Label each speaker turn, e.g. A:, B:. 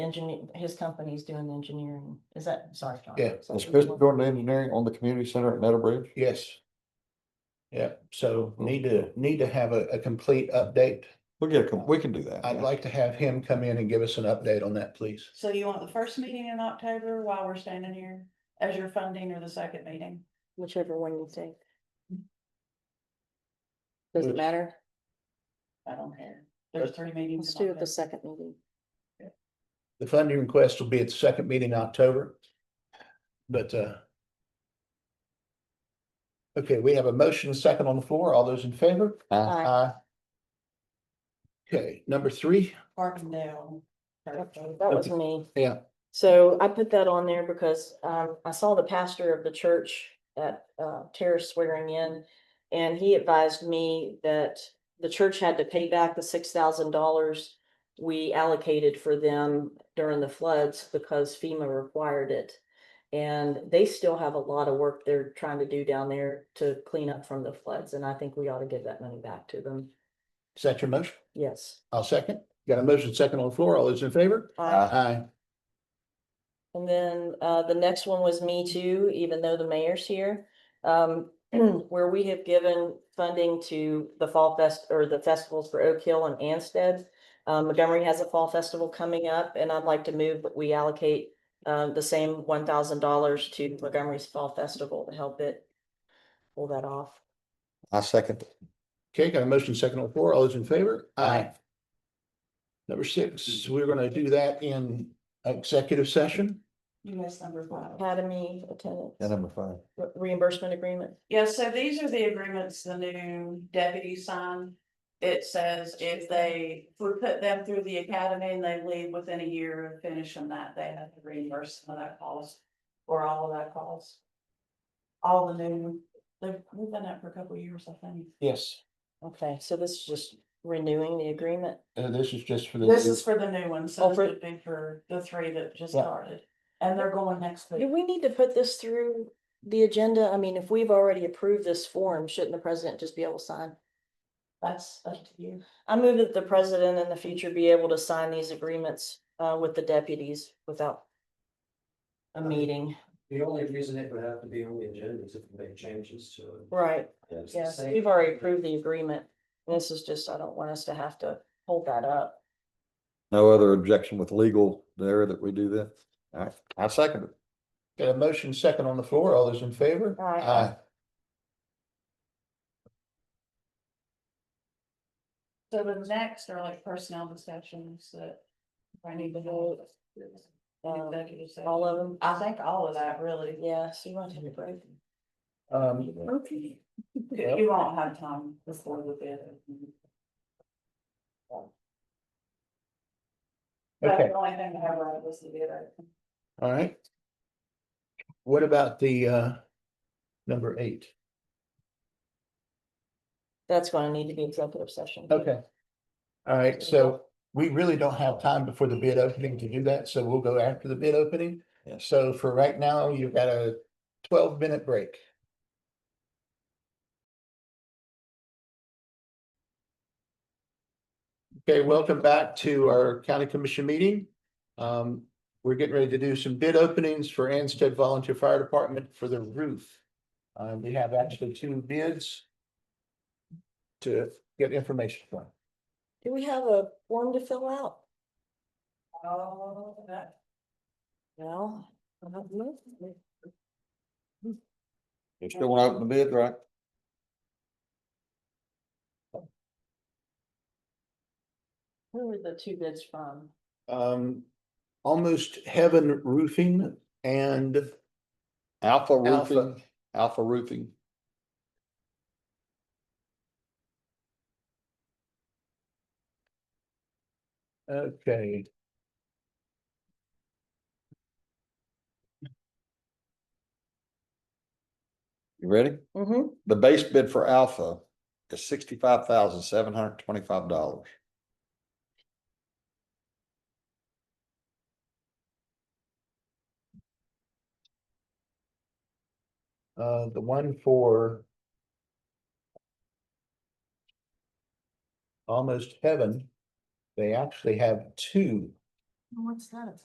A: engineer, his company's doing the engineering. Is that, sorry, John.
B: Yeah,
A: Is that
C: Is
A: the
C: Chris
A: one?
C: doing the engineering on the community center at Meadowbridge?
B: Yes. Yeah, so need to, need to have a, a complete update.
C: We'll get, a com- we can do that.
B: I'd
C: yeah.
B: like to have him come in and give us an update on that, please.
D: So you want the first meeting in October while we're standing here as your funding or the second meeting?
A: Whichever one you think.
B: Does it
A: matter?
D: I don't care. There's three meetings. in October.
A: second meeting.
B: The funding request will be at the second meeting in October. But, uh. Okay, we have a motion and second on the floor. All those in favor?
C: Uh,
B: Aye. Okay, number three,
D: Carbondale.
A: Okay, That was
B: Okay.
A: me.
B: Yeah.
A: So I put that on there because um I saw the pastor of the church at uh Terrace swearing in. And he advised me that the church had to pay back the six thousand dollars we allocated for them during the floods because FEMA required it. And they still have a lot of work they're trying to do down there to clean up from the floods, and I think we ought to give that money back to them.
B: is that your motion?
A: Yes.
B: I'll second. Got a motion second on the floor. All those in favor?
C: Aye.
B: Aye.
A: And then uh the next one was me too, even though the mayor's here. Um, where we have given funding to the fall fest or the festivals for Oak Hill and Anstead. Uh, Montgomery has a fall festival coming up and I'd like to move, that we allocate um the same one thousand dollars to Montgomery's Fall Festival to help it. Pull that off.
C: I second.
B: Okay, got a motion second on the floor. All those in favor? Aye. Number six, we're gonna do that in executive session.
D: US number five.
A: Academy
C: Yeah,
A: attendance
C: number five.
A: re- reimbursement agreement.
D: Yeah, so these are the agreements the new deputy signed. It says if they, if we put them through the academy and they leave within a year of finishing that, they have to reimburse some of that cost. Or all of that cost. All the new, they've, we've done that for a couple of years, I think.
B: Yes.
A: Okay, so this is just renewing the agreement.
B: Uh, this is just for the.
D: This is for the new one,
A: Oh,
D: so this
A: for-
D: would be for the three that just
B: Yeah.
D: started, and they're going next
A: Do
D: week.
A: we need to put this through the agenda? I mean, if we've already approved this form, shouldn't the president just be able to sign?
D: That's up to you.
A: I move that the president in the future be able to sign these agreements uh with the deputies without a meeting.
E: The only reason it would have to be on the agenda is if we make changes to it.
A: Right,
E: It's the
A: yes,
E: same-
A: we've already approved the agreement. This is just, I don't want us to have to hold that up.
C: No other objection with legal there that we do that? All right, I second it.
B: Got a motion second on the floor. All those in favor?
A: Aye.
D: So the next are like personnel discussions that I need to hold.
A: Um,
D: Executive session.
A: all of them,
D: I think all of that really.
A: yeah, so you want to take a break?
B: Um,
D: Okay. You won't have time before the bid. That's
B: okay,
D: the only thing I have right was the bid.
B: all right. What about the, uh, number eight?
A: That's gonna need to be executive session.
B: Okay. All right, so we really don't have time before the bid opening to do that, so we'll go after the bid opening.
C: Yes.
B: So for right now, you've got a twelve minute break. Okay, welcome back to our county commission meeting. Um, we're getting ready to do some bid openings for Anstead Volunteer Fire Department for the roof. Um, we have actually two bids to get information from.
A: Do we have a form to fill out?
D: Oh, that.
A: Well. I don't know.
C: You still want to open the bid, right?
A: Who were the two bids from?
B: um, almost heaven roofing and
C: Alpha
B: alpha.
C: roofing, alpha roofing.
B: Okay.
C: You ready?
A: Mm-hmm.
C: The base bid for alpha is sixty-five thousand, seven hundred twenty-five dollars.
B: Uh, the one for almost heaven, they actually have two
A: What's that?